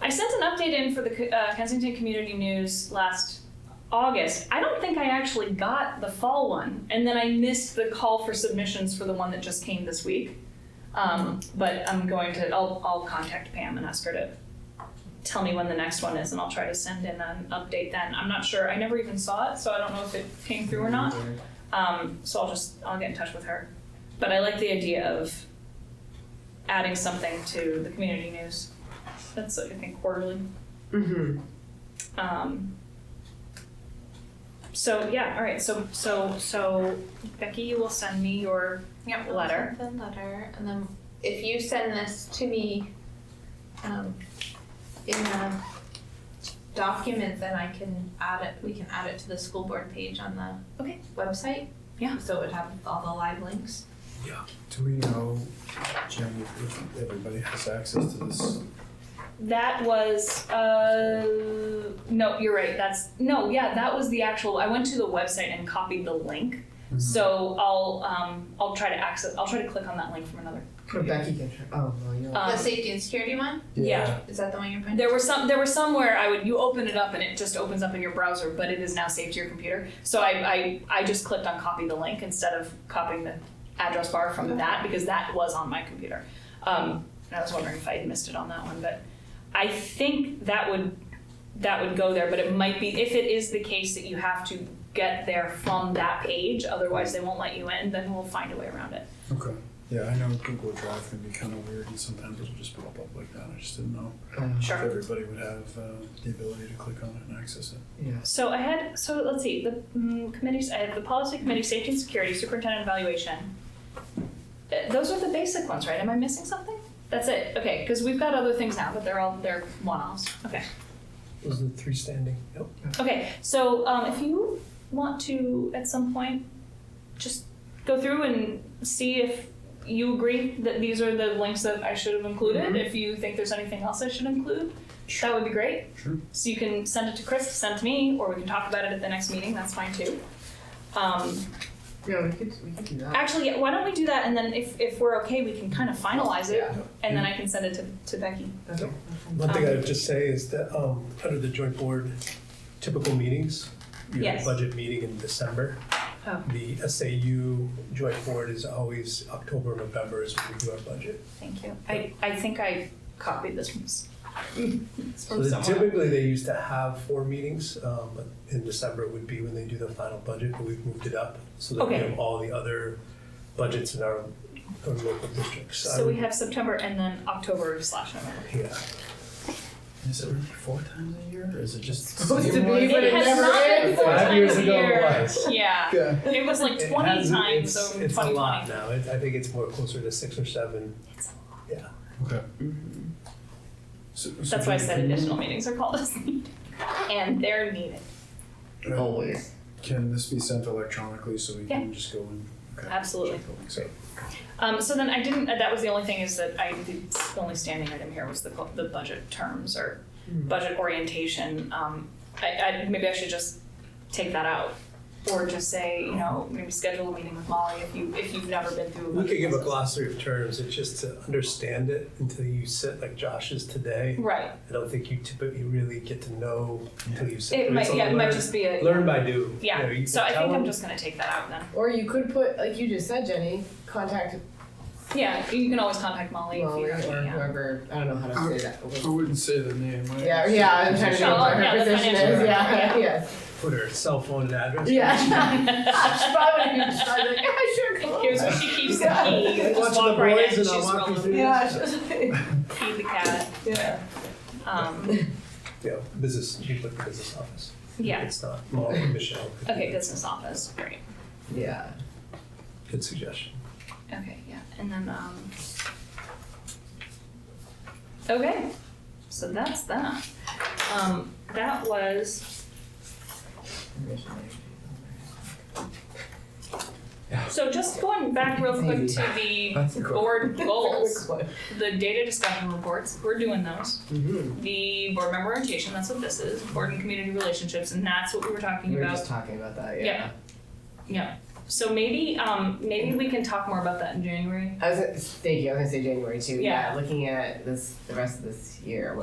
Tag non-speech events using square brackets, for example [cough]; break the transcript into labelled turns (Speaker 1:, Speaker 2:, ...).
Speaker 1: I sent an update in for the co- uh, Kensington Community News last August. I don't think I actually got the fall one, and then I missed the call for submissions for the one that just came this week. Um, but I'm going to, I'll, I'll contact Pam and ask her to tell me when the next one is, and I'll try to send in an update then. I'm not sure. I never even saw it, so I don't know if it came through or not. Um, so I'll just I'll get in touch with her. But I like the idea of adding something to the community news. That's I think quarterly.
Speaker 2: Mm-hmm.
Speaker 1: Um, so yeah, all right. So so so Becky, you will send me your
Speaker 3: Yep.
Speaker 1: Letter.
Speaker 3: The letter, and then if you send this to me, um, in a document, then I can add it, we can add it to the school board page on the
Speaker 1: Okay.
Speaker 3: website.
Speaker 1: Yeah.
Speaker 3: So it would have all the live links.
Speaker 4: Do we know, Jim, if if everybody has access to this?
Speaker 1: That was uh no, you're right. That's no, yeah, that was the actual. I went to the website and copied the link.
Speaker 5: Mm-hmm.
Speaker 1: So I'll um I'll try to access. I'll try to click on that link from another.
Speaker 2: Becky can try. Oh, well, you
Speaker 1: Um,
Speaker 3: the safety and security one,
Speaker 1: yeah.
Speaker 3: is that the one you're putting?
Speaker 1: There were some. There were somewhere I would you open it up and it just opens up in your browser, but it is now saved to your computer. So I I, I just clicked on copy the link instead of copying the address bar from that because that was on my computer. Um, and I was wondering if I had missed it on that one, but I think that would that would go there. But it might be if it is the case that you have to get there from that page, otherwise they won't let you in. Then we'll find a way around it.
Speaker 4: Okay, yeah, I know Google Drive can be kind of weird and sometimes it'll just pop up like that. I just didn't know
Speaker 2: um,
Speaker 4: if
Speaker 1: Sure.
Speaker 4: everybody would have uh, the ability to click on it and access it.
Speaker 2: yes.
Speaker 1: So I had, so let's see, the mm, committees, I had the policy committee, safety and security, superintendent evaluation. Uh, Those are the basic ones, right? Am I missing something? That's it, okay, because we've got other things now, but they're all, they're one-offs, okay.
Speaker 5: Those are the three standing, yep.
Speaker 1: Okay, so um, if you want to, at some point, just go through and see if you agree that these are the links that I should have included. If you think there's anything else I should include, that would be great.
Speaker 4: Sure.
Speaker 1: So you can send it to Chris, send it to me, or we can talk about it at the next meeting. That's fine too. Um,
Speaker 2: Yeah, we could, we could do that.
Speaker 1: actually, yeah, why don't we do that? And then if, if we're okay, we can kind of finalize it,
Speaker 2: Yeah.
Speaker 1: and then I can send it to, to Becky.
Speaker 2: Okay.
Speaker 5: One thing I'd just say is that, um, under the joint board typical meetings, you have
Speaker 1: Yes.
Speaker 5: a budget meeting in December.
Speaker 1: Oh.
Speaker 5: The SAU joint board is always October, November is when we do our budget.
Speaker 1: Thank you. I, I think I copied this from, s- it's
Speaker 5: So
Speaker 1: from
Speaker 5: that
Speaker 1: somewhere.
Speaker 5: typically, they used to have four meetings, um, but in December would be when they do the final budget, but we've moved it up so that we
Speaker 1: Okay.
Speaker 5: have all the other budgets in our, our local districts. Um,
Speaker 1: So we have September and then October slash November.
Speaker 5: Yeah.
Speaker 4: Is it really four times a year or is it just?
Speaker 2: Supposed to be, but
Speaker 1: It
Speaker 2: it
Speaker 1: has
Speaker 2: never
Speaker 1: not been
Speaker 2: is.
Speaker 1: four
Speaker 5: Five years
Speaker 1: times a
Speaker 5: ago it
Speaker 1: year.
Speaker 5: [laughs] was.
Speaker 1: Yeah,
Speaker 4: Yeah.
Speaker 1: it was like
Speaker 5: It
Speaker 1: twenty
Speaker 5: has-
Speaker 1: times
Speaker 5: it's-
Speaker 1: over
Speaker 5: It's a
Speaker 1: twenty
Speaker 5: lot
Speaker 1: twenty.
Speaker 5: now, It- I think it's more closer to six or seven.
Speaker 4: Okay. So- so
Speaker 1: That's why I said
Speaker 4: can-
Speaker 1: additional meetings are called as needed, [laughs] and they're needed,
Speaker 2: Always.
Speaker 4: Can this be sent electronically so we can just go and? okay,
Speaker 1: absolutely.
Speaker 4: check the links out?
Speaker 1: Um, so then I didn't, uh, that was the only thing is that I, the only standing item here was the, co- the budget terms or
Speaker 5: Hmm.
Speaker 1: budget orientation. Um, I, I, maybe I should just take that out or just say, you know, maybe schedule a meeting with Molly if you, if you've never been through a
Speaker 5: We
Speaker 1: budget
Speaker 5: could give a
Speaker 1: process.
Speaker 5: glossary of terms, it's just to understand it until you sit like Josh is today.
Speaker 1: Right,
Speaker 5: I don't think you typically really get to know until you sit.
Speaker 1: it
Speaker 5: there. It's
Speaker 1: might,
Speaker 5: a
Speaker 1: yeah, it might
Speaker 5: learn-
Speaker 1: just be a,
Speaker 5: Learn by do. You know,
Speaker 1: yeah,
Speaker 5: you
Speaker 1: so
Speaker 5: can
Speaker 1: I
Speaker 5: tell
Speaker 1: think I'm
Speaker 5: them-
Speaker 1: just gonna take that out then.
Speaker 2: Or you could put, like you just said, Jenny, contact
Speaker 1: Yeah, you can always contact Molly if
Speaker 2: Molly
Speaker 1: you're,
Speaker 2: or
Speaker 1: yeah.
Speaker 2: whoever. I don't know how
Speaker 5: Uh,
Speaker 2: to say that.
Speaker 4: I wouldn't say the name. I-
Speaker 2: Yeah, yeah, I'm trying to
Speaker 1: Oh,
Speaker 2: know what
Speaker 1: yeah,
Speaker 2: her
Speaker 1: the
Speaker 2: position
Speaker 1: financial [laughs]
Speaker 2: is.
Speaker 1: director, yeah.
Speaker 2: Yeah, yes.
Speaker 5: Put her cell phone and
Speaker 2: [laughs]
Speaker 5: address.
Speaker 2: She probably would be just like, yeah, sure, come
Speaker 1: [laughs]
Speaker 2: on.
Speaker 1: Here's where she keeps the key,
Speaker 5: Yeah.
Speaker 1: you just
Speaker 5: Watch
Speaker 1: walk
Speaker 5: the
Speaker 1: right in,
Speaker 5: boys and I'll
Speaker 1: she's
Speaker 5: walk you
Speaker 1: rolling,
Speaker 5: through.
Speaker 2: Yeah, sure.
Speaker 1: feed the cat, [laughs]
Speaker 2: yeah.
Speaker 1: um,
Speaker 5: Yeah, business, you put the business office.
Speaker 1: yeah,
Speaker 5: It's not, oh, Michelle. could do
Speaker 1: okay,
Speaker 5: that.
Speaker 1: business office, great,
Speaker 2: Yeah.
Speaker 5: Good suggestion.
Speaker 1: okay, yeah, and then, um. Okay, so that's that, um, that was, so just going back real quick to the
Speaker 4: That's a cool-
Speaker 1: board goals, the data discussion reports, we're doing those.
Speaker 2: Mm-hmm.
Speaker 1: The board member orientation, that's what this is, board and community relationships, and that's what we were talking
Speaker 2: We were
Speaker 1: about
Speaker 2: just talking about that, yeah.
Speaker 1: Yeah. So maybe um maybe we can talk more about that in January.
Speaker 2: I was thank you. I was gonna say January too.
Speaker 1: Yeah.
Speaker 2: yeah looking at this, the rest of this year, what